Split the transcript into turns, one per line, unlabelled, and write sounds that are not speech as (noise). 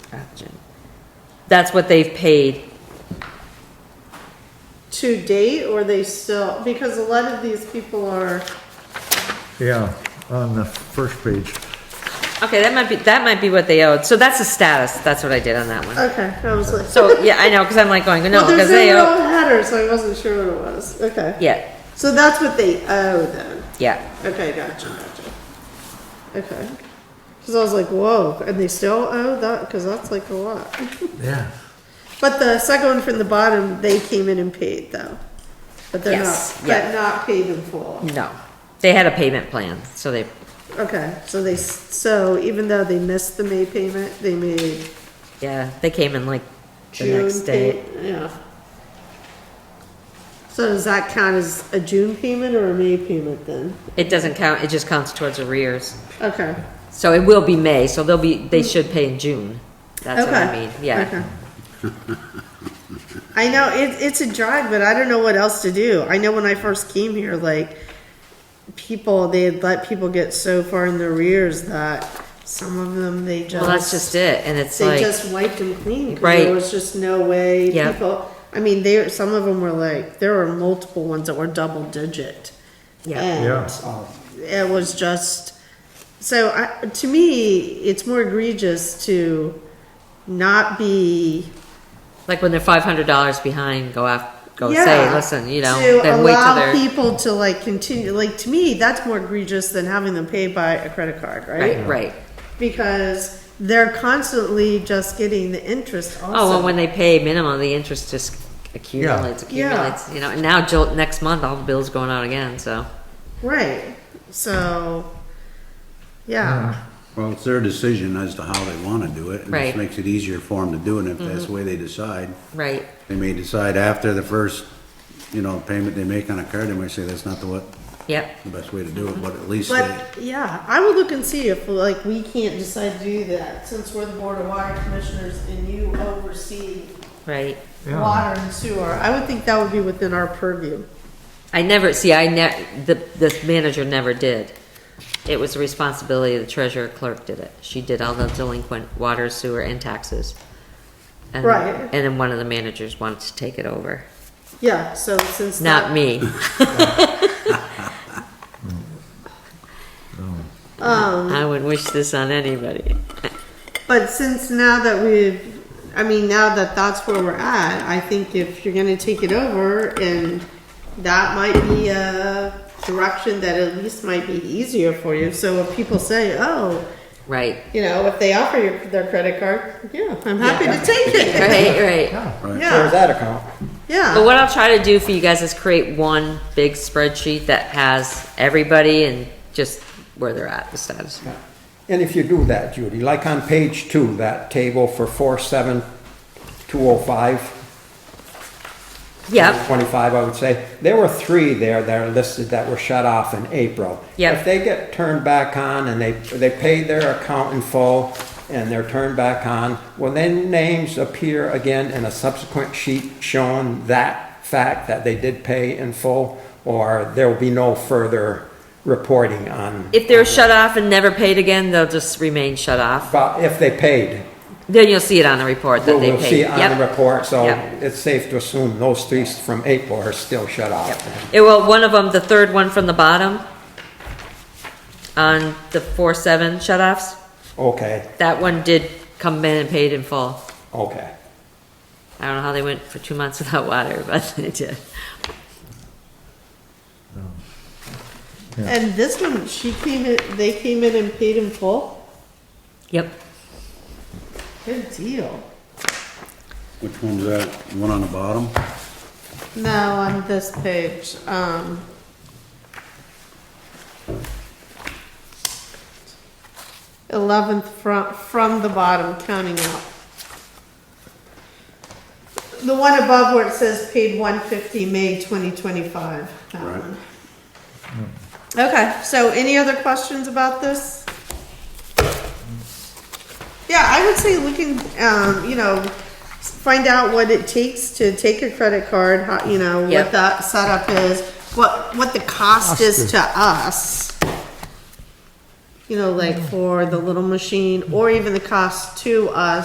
Trajan. That's what they've paid.
to date, or they still, because a lot of these people are,
Yeah, on the first page.
Okay, that might be, that might be what they owed. So that's the status. That's what I did on that one.
okay, I was like. (laughs)
So, yeah, I know, because I'm like going, no,
Well,
because they
there's no
owe,
real header, so I wasn't sure what it was, okay.
yeah,
So that's what they owe then,
yeah.
okay, gotcha, gotcha. Okay, cause I was like, whoa, and they still owe that, cause that's like a lot.
Yeah.
But the second one from the bottom, they came in and paid though, but they're
Yes,
not,
yeah.
but not paid in full.
No, they had a payment plan, so they,
Okay, so they, s- so even though they missed the May payment, they made
yeah, they came in like the
June
next day.
pay- Yeah. So does that count as a June payment or a May payment then?
It doesn't count, it just counts towards arrears.
Okay.
So it will be May, so they'll be, they should pay in June. That's what I mean, yeah.
okay. I know, it, it's a drag, but I don't know what else to do. I know when I first came here, like, people, they had let people get so far in their rears that some of them, they just.
Well, that's just it, and it's
They
like,
just wiped them clean. 'cause
Right.
There was just no way
Yeah.
people, I mean, they, some of them were like, there were multiple ones that were double digit.
yeah,
And it was just, so I, to me, it's more egregious to not be.
like when they're five hundred dollars behind, go af, go say,
Yeah,
listen, you know,
to
then wait till
allow
they're,
People to like continue, like, to me, that's more egregious than having them paid by a credit card,
right,
right?
right.
Because they're constantly just getting the interest also.
Oh, well, when they pay minimum, the interest just accumulates,
Yeah.
accumulates, you know, and now Jill, next month, all the bills going out again, so.
Right. So, yeah.
Well, it's their decision as to how they want to do it. and
Right.
It makes it easier for them to do it if that's the way they decide.
Right,
They may decide after the first, you know, payment they make on a card, they might say that's not the what,
yep,
the best way to do it, but at least they,
But yeah, I will look and see if like we can't decide to do that since we're the board of water commissioners and you oversee
right.
Yeah.
water and sewer. I would think that would be within our purview.
I never, see, I ne, the, this manager never did. It was the responsibility of the treasurer clerk did it. She did all the delinquent water, sewer, and taxes. And-
Right.
And then one of the managers wanted to take it over.
Yeah. So since
Not
(laughs)
me.
that, um,
I would wish this on anybody.
But since now that we've, I mean, now that that's where we're at, I think if you're gonna take it over, and that might be a direction that at least might be easier for you. So if people say, oh,
Right,
you know, if they offer you their credit card, yeah, I'm happy to take it.
right, right.
Yeah.
Yeah.
that account.
But
Yeah,
what I'll try to do for you guys is create one big spreadsheet that has everybody and just where they're at, the status.
And if you do that, Judy, like on page two, that table for four seven two oh five,
Yep,
twenty-five, I would say, there were three there that are listed that were shut off in April.
Yep.
If they get turned back on and they, they pay their account in full and they're turned back on, will then names appear again in a subsequent sheet showing that fact that they did pay in full? Or there will be no further reporting on,
if they're shut off and never paid again, they'll just remain shut off.
about if they paid?
Then you'll see it on the report that
Well,
they
we'll see
paid.
it on the
Yep.
report, so
Yep.
it's safe to assume those three from April are still shut off.
It, well, one of them, the third one from the bottom, on the four seven shut offs,
Okay,
that one did come in and paid in full.
okay.
I don't know how they went for two months (laughs) without water, but they did.
and this one, she came in, they came in and paid in full.
Yep,
Good deal.
which one's that? The One on the bottom?
No, on this page, um. Eleventh from, from the bottom, counting up. The one above where it says paid one fifty, May twenty twenty-five, that
Right.
one. Okay, so any other questions about this? Yeah, I would say we can, um, you know, find out what it takes to take a credit card, how, you know,
Yep.
what that setup is, what, what the cost is to us. You know, like for the little machine, or even the cost to us